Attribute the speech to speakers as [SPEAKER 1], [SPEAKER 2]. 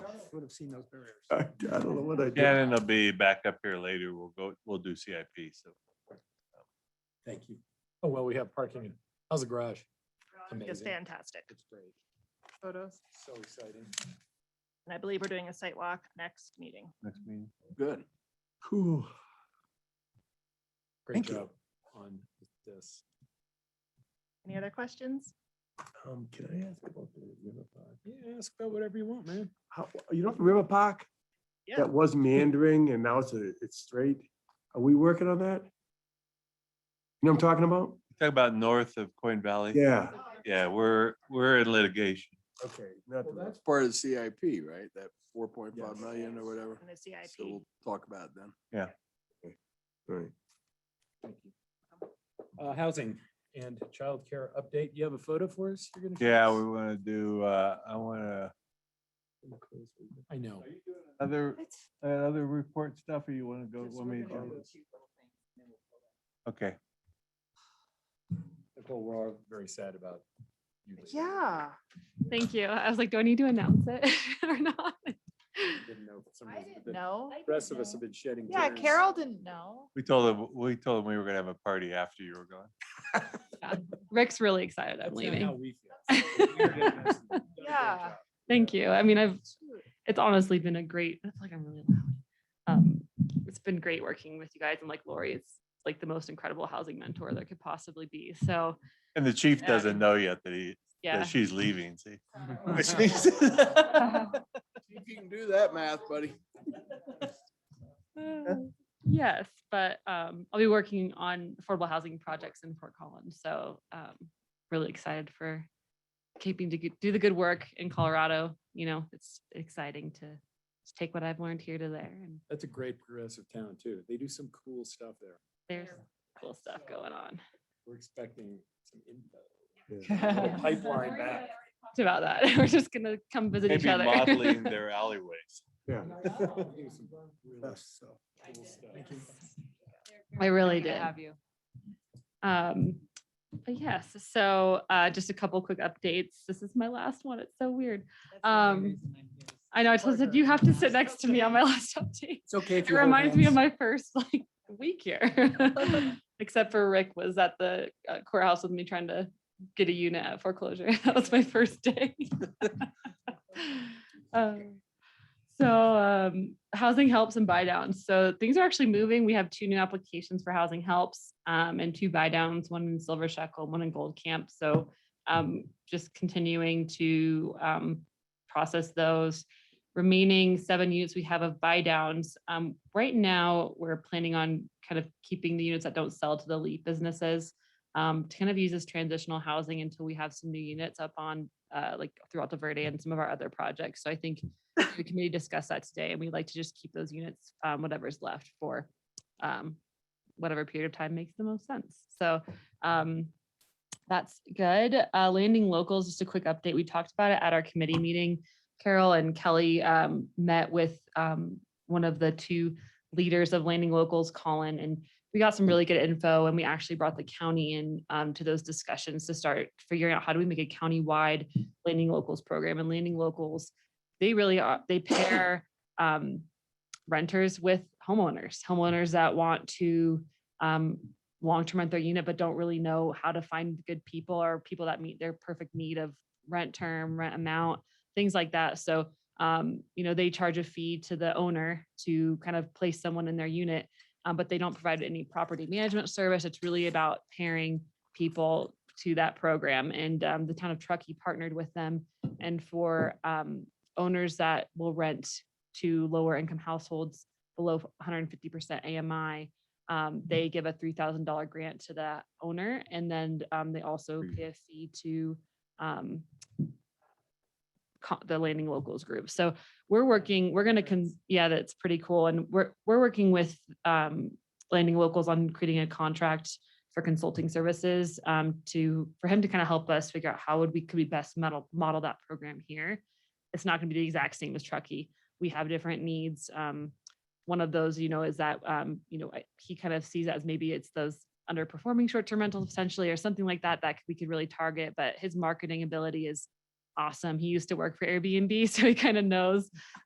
[SPEAKER 1] would have seen those barriers.
[SPEAKER 2] I I don't know what I did.
[SPEAKER 3] Shannon will be back up here later. We'll go, we'll do CIP, so.
[SPEAKER 2] Thank you.
[SPEAKER 4] Oh, well, we have parking. How's the garage?
[SPEAKER 5] It's
[SPEAKER 4] Amazing.
[SPEAKER 5] fantastic.
[SPEAKER 4] It's great.
[SPEAKER 5] Photos.
[SPEAKER 4] So exciting.
[SPEAKER 5] And I believe we're doing a site walk next meeting.
[SPEAKER 3] Next meeting.
[SPEAKER 2] Good. Cool.
[SPEAKER 4] Great
[SPEAKER 2] Thank you.
[SPEAKER 4] job on this.
[SPEAKER 5] Any other questions?
[SPEAKER 2] Um, can I ask about the river park?
[SPEAKER 4] Yeah, ask about whatever you want, man.
[SPEAKER 2] How, you know, the river park?
[SPEAKER 5] Yeah.
[SPEAKER 2] That was meandering and now it's a, it's straight. Are we working on that? You know what I'm talking about?
[SPEAKER 3] Talk about north of Coin Valley.
[SPEAKER 2] Yeah,
[SPEAKER 3] Yeah, we're, we're in litigation.
[SPEAKER 2] okay. not the-
[SPEAKER 6] Well, that's part of the CIP, right? That four point five
[SPEAKER 2] Yes.
[SPEAKER 6] million or whatever.
[SPEAKER 5] And the
[SPEAKER 6] So
[SPEAKER 5] CIP.
[SPEAKER 6] we'll talk about it then.
[SPEAKER 2] Right.
[SPEAKER 4] Uh, housing and childcare update. You have a photo for us? You're gonna show
[SPEAKER 3] Yeah,
[SPEAKER 4] us?
[SPEAKER 3] we want to do, uh, I want to.
[SPEAKER 4] I know.
[SPEAKER 3] Other, uh, other report stuff or you want to go?
[SPEAKER 7] Just
[SPEAKER 3] want
[SPEAKER 7] we're
[SPEAKER 3] me
[SPEAKER 7] gonna
[SPEAKER 3] to-
[SPEAKER 7] do two little things and then we'll pull that.
[SPEAKER 3] Okay,
[SPEAKER 4] Nicole, we're all very sad about you. leaving.
[SPEAKER 5] Yeah.
[SPEAKER 8] Thank you. I was like, do I need to announce it or not?
[SPEAKER 4] Didn't know for some
[SPEAKER 7] I
[SPEAKER 4] reason,
[SPEAKER 7] didn't
[SPEAKER 4] but
[SPEAKER 5] No.
[SPEAKER 4] The rest of us have been shedding.
[SPEAKER 5] Yeah,
[SPEAKER 4] tears.
[SPEAKER 5] Carol didn't know.
[SPEAKER 3] we told them, we told them we were going to have a party after you were gone.
[SPEAKER 8] Rick's really excited
[SPEAKER 4] That's
[SPEAKER 8] I'm
[SPEAKER 4] not how
[SPEAKER 8] leaving.
[SPEAKER 4] we feel. You're doing an excellent- done a great
[SPEAKER 5] Yeah.
[SPEAKER 4] job.
[SPEAKER 8] Thank you. I mean, I've, it's honestly been a great, I feel like I'm really loud. Um, It's been great working with you guys and like Lori is like the most incredible housing mentor there could possibly be. So,
[SPEAKER 3] And the chief
[SPEAKER 8] Yeah.
[SPEAKER 3] doesn't know yet that he,
[SPEAKER 8] yeah.
[SPEAKER 3] that she's leaving, see?
[SPEAKER 6] If you can do that math, buddy.
[SPEAKER 8] Uh,
[SPEAKER 5] Hmm.
[SPEAKER 8] Yes, but um, I'll be working on affordable housing projects in Fort Collins. So um, really excited for keeping to g- do the good work in Colorado. You know, it's exciting to take what I've learned here to there and
[SPEAKER 4] That's a great progressive town too. They do some cool stuff there.
[SPEAKER 8] there's cool stuff going on.
[SPEAKER 4] We're expecting some info.
[SPEAKER 2] Yeah.
[SPEAKER 4] A Pipeline back.
[SPEAKER 8] It's about that. We're just gonna come visit each
[SPEAKER 3] Maybe
[SPEAKER 8] other.
[SPEAKER 3] modeling their alleyways.
[SPEAKER 2] Yeah.
[SPEAKER 4] We do some really
[SPEAKER 2] Yes, so.
[SPEAKER 4] cool stuff.
[SPEAKER 8] I really
[SPEAKER 5] Happy to
[SPEAKER 8] did.
[SPEAKER 5] Have you.
[SPEAKER 8] Um, but yes, so uh, just a couple quick updates. This is my last one. It's so weird.
[SPEAKER 7] That's the only
[SPEAKER 8] Um,
[SPEAKER 7] reason I'm here, is
[SPEAKER 8] I know I told
[SPEAKER 7] harder
[SPEAKER 8] you you have to
[SPEAKER 7] than
[SPEAKER 8] sit
[SPEAKER 7] that.
[SPEAKER 8] next to me on my last update.
[SPEAKER 2] It's okay if
[SPEAKER 8] It reminds me of my first like week here. Except for Rick was at the uh, courthouse with me trying to get a unit at foreclosure. That was my first day. Um, So um, housing helps and buy downs. So things are actually moving. We have two new applications for housing helps um, and two buy downs, one in Silver Shekel, one in Gold Camp. So um, just continuing to um, process those remaining seven units we have of buy downs. Um, right now, we're planning on kind of keeping the units that don't sell to the LEAP businesses. Um, to kind of use as transitional housing until we have some new units up on, uh, like throughout the Verde and some of our other projects. So I think the committee discussed that today and we'd like to just keep those units, um, whatever's left for, um, whatever period of time makes the most sense. So, um, that's good. Uh, landing locals, just a quick update. We talked about it at our committee meeting. Carol and Kelly um, met with um, one of the two leaders of Landing Locals, Colin, and we got some really good info and we actually brought the county in um, to those discussions to start figuring out how do we make a county-wide Landing Locals program and Landing Locals, they really are, they pair um, renters with homeowners, homeowners that want to um, long-term rent their unit but don't really know how to find good people or people that meet their perfect need of rent term, rent amount things like that. So, um, you know, they charge a fee to the owner to kind of place someone in their unit, um, but they don't provide any property management service. It's really about pairing people to that program. And um, the town of Truckee partnered with them. And for um, owners that will rent to lower income households below 150% AMI, um, they give a $3,000 grant to the owner. And then um, they also
[SPEAKER 3] Hmm.
[SPEAKER 8] pay a fee to um, co- the landing locals group. So we're working, we're gonna, con- yeah, that's pretty cool. And we're, we're working with um, landing locals on creating a contract for consulting services um, to, for him to kind of help us figure out how would we, could we best model, model that program here. It's not gonna be the exact same as Truckee. We have different needs. Um, One of those, you know, is that, um, you know, I- he kind of sees it as maybe it's those underperforming short-term rentals potentially or something like that, that we could really target, but his marketing ability is awesome. He used to work for Airbnb, so he kind of knows